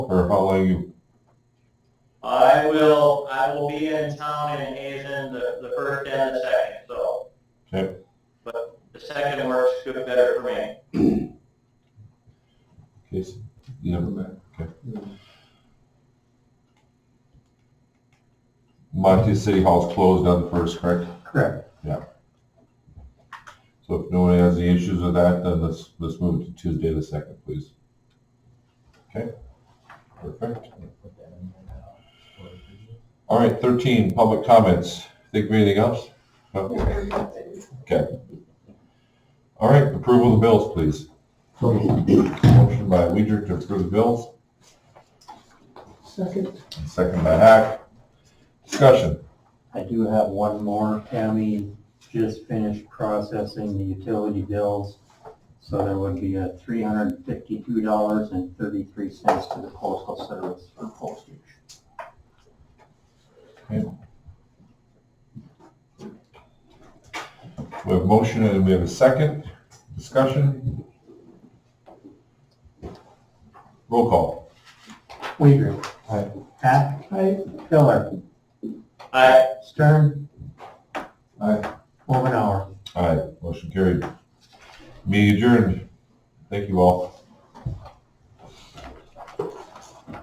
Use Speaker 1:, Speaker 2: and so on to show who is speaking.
Speaker 1: or how long you,
Speaker 2: I will, I will be in town in Hazen the, the first and the second, so.
Speaker 1: Okay.
Speaker 2: But the second works good, better for me.
Speaker 1: case, you have it back, okay. Monty City Hall's closed on the first, correct?
Speaker 3: Correct.
Speaker 1: So if no one has any issues with that, then let's, let's move to Tuesday the second, please. Okay, perfect. All right, thirteen, public comments. Think of anything else? No? All right, approval of the bills, please. Motion by Weider to approve the bills,
Speaker 3: Second.
Speaker 1: and second by Hack. Discussion.
Speaker 3: I do have one more. Tammy just finished processing the utility bills. So there would be a three hundred and fifty-two dollars and thirty-three cents to the postal service for postage.
Speaker 1: We have a motion and we have a second. Discussion. Roll call.
Speaker 3: Weider.
Speaker 1: Aye.
Speaker 3: Hack. Pillar.
Speaker 2: I,
Speaker 3: Stern.
Speaker 1: Aye.
Speaker 3: Over an hour.
Speaker 1: Aye, motion carried. Meeting adjourned. Thank you all.